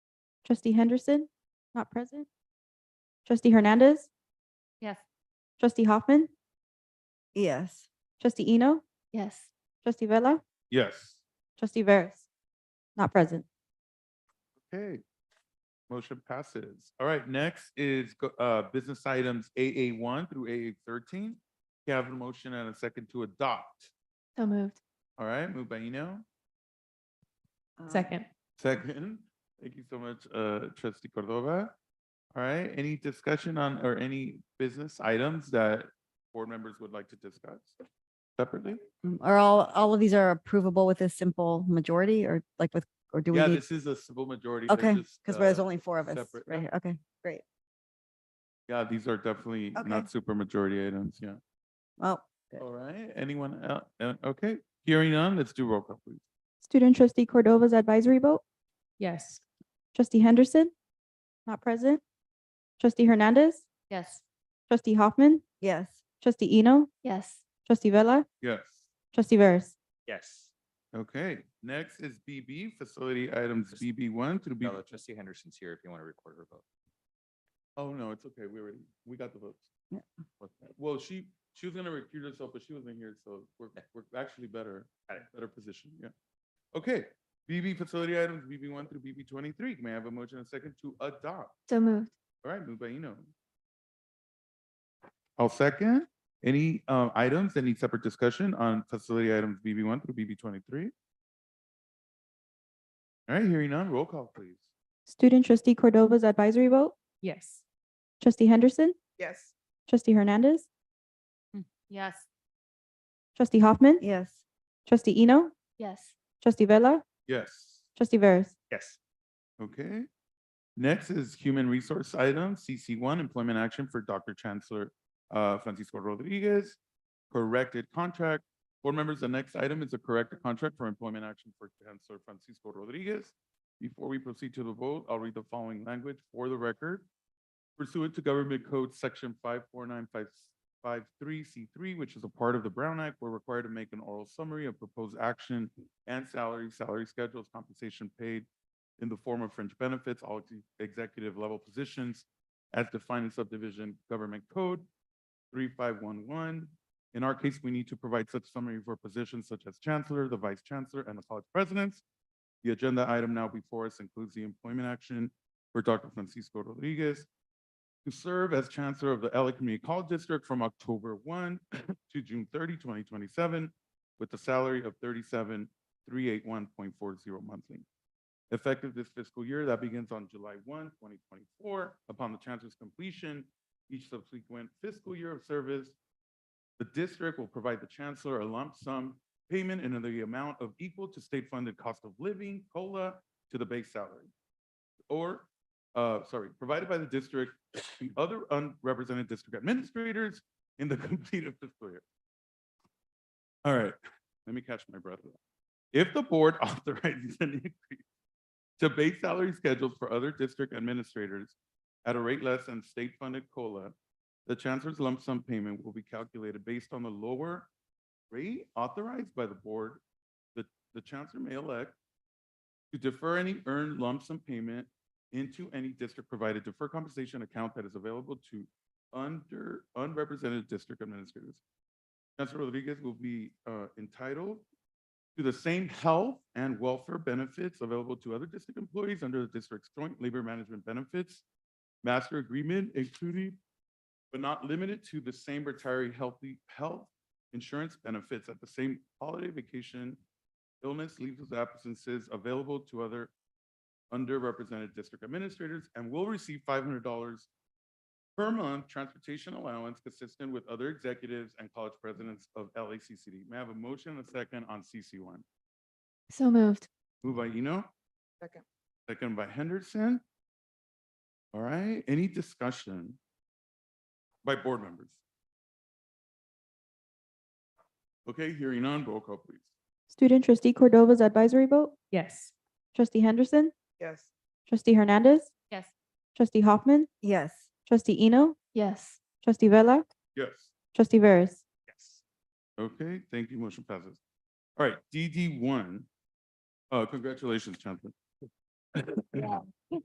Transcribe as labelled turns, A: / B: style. A: Trustee Henderson, not present. Trustee Hernandez,
B: Yes.
A: trustee Hoffman,
C: Yes.
A: trustee Eno,
B: Yes.
A: trustee Vella,
D: Yes.
A: trustee Veras, not present.
D: Okay. Motion passes. All right, next is go- uh, business items AA one through AA thirteen. You have a motion and a second to adopt.
B: So moved.
D: All right, moved by Eno,
C: um,
B: Second.
D: second. Thank you so much, uh, trustee Cordova. All right, any discussion on, or any business items that board members would like to discuss separately?
C: um, Are all, all of these are approvable with a simple majority or like with, or do we
D: Yeah,
C: need?
D: this is a civil majority. They're
C: Okay,
D: just,
C: because there's
D: uh,
C: only four of us
D: separate.
C: right here. Okay, great.
D: Yeah, these are definitely
C: Okay.
D: not super majority items, yeah.
C: Well,
D: All right, anyone else? Okay, hearing none, let's do roll call, please.
A: Student trustee Cordova's advisory vote,
B: Yes.
A: trustee Henderson, not present. Trustee Hernandez,
B: Yes.
A: trustee Hoffman,
C: yes.
A: trustee Eno,
B: Yes.
A: trustee Vella,
D: Yes.
A: trustee Veras.
E: Yes.
D: Okay, next is BB, facility items BB one through B.
E: Bella, trustee Henderson's here if you want to record her vote.
D: Oh, no, it's okay, we already, we got the votes.
C: Yeah.
D: Okay, Well, she, she was gonna recuse herself, but she wasn't here, so we're, we're actually better, better position, yeah. Okay, BB facility items BB one through BB twenty-three. May I have a motion and a second to adopt?
B: So moved.
D: All right, moved by Eno. I'll second. Any uh, items that need separate discussion on facility items BB one through BB twenty-three? All right, hearing none, roll call, please.
A: Student trustee Cordova's advisory vote,
B: Yes.
A: trustee Henderson,
D: Yes.
A: trustee Hernandez,
B: Mm, Yes.
A: trustee Hoffman,
C: Yes.
A: trustee Eno,
B: Yes.
A: trustee Vella,
D: Yes,
A: trustee Veras.
E: Yes.
D: okay. Next is human resource item, CC one, employment action for Dr. Chancellor uh, Francisco Rodriguez, corrected contract. Board members, the next item is a corrected contract for employment action for Chancellor Francisco Rodriguez. Before we proceed to the vote, I'll read the following language for the record. Pursuant to Government Code Section five four nine five five three C three, which is a part of the Brown Act, we're required to make an oral summary of proposed action and salary, salary schedules, compensation paid in the form of fringe benefits, all ex- executive level positions as defined in subdivision government code three five one one. In our case, we need to provide such summary for positions such as chancellor, the vice chancellor, and the college presidents. The agenda item now before us includes the employment action for Dr. Francisco Rodriguez to serve as chancellor of the LA Community College District from October one to June 30, 2027, with a salary of thirty-seven, three eight one point four zero monthly. Effective this fiscal year, that begins on July 1, 2024. Upon the chancellor's completion, each subsequent fiscal year of service, the district will provide the chancellor a lump sum payment in the amount of equal to state-funded cost of living, COLA, to the base salary. Or, uh, sorry, provided by the district, the other unrepresented district administrators in the completed fiscal year. All right, let me catch my breath. If the board authorizes an increase to base salary schedules for other district administrators at a rate less than state-funded COLA, the chancellor's lump sum payment will be calculated based on the lower rate authorized by the board. The, the chancellor may elect to defer any earned lump sum payment into any district-provided deferred compensation account that is available to under unrepresented district administrators. Chancellor Rodriguez will be uh, entitled to the same health and welfare benefits available to other district employees under the district's joint labor management benefits master agreement, including but not limited to the same retiree healthy health insurance benefits at the same holiday vacation, illness, leave of absences available to other underrepresented district administrators and will receive five hundred dollars per month transportation allowance consistent with other executives and college presidents of LACCD. May I have a motion and a second on CC one?
B: So moved.
D: Moved by Eno. Second. Second by Henderson. All right, any discussion by board members? Okay, hearing none, roll call please.
A: Student trustee Cordova's advisory vote,
B: Yes.
A: trustee Henderson,
D: Yes.
A: trustee Hernandez,
B: Yes.
A: trustee Hoffman,
C: Yes.
A: trustee Eno,
B: Yes.
A: trustee Vella,
D: Yes.
A: trustee Veras.
E: Yes.
D: Okay, thank you. Motion passes. All right, DD one. Uh, congratulations, Chancellor.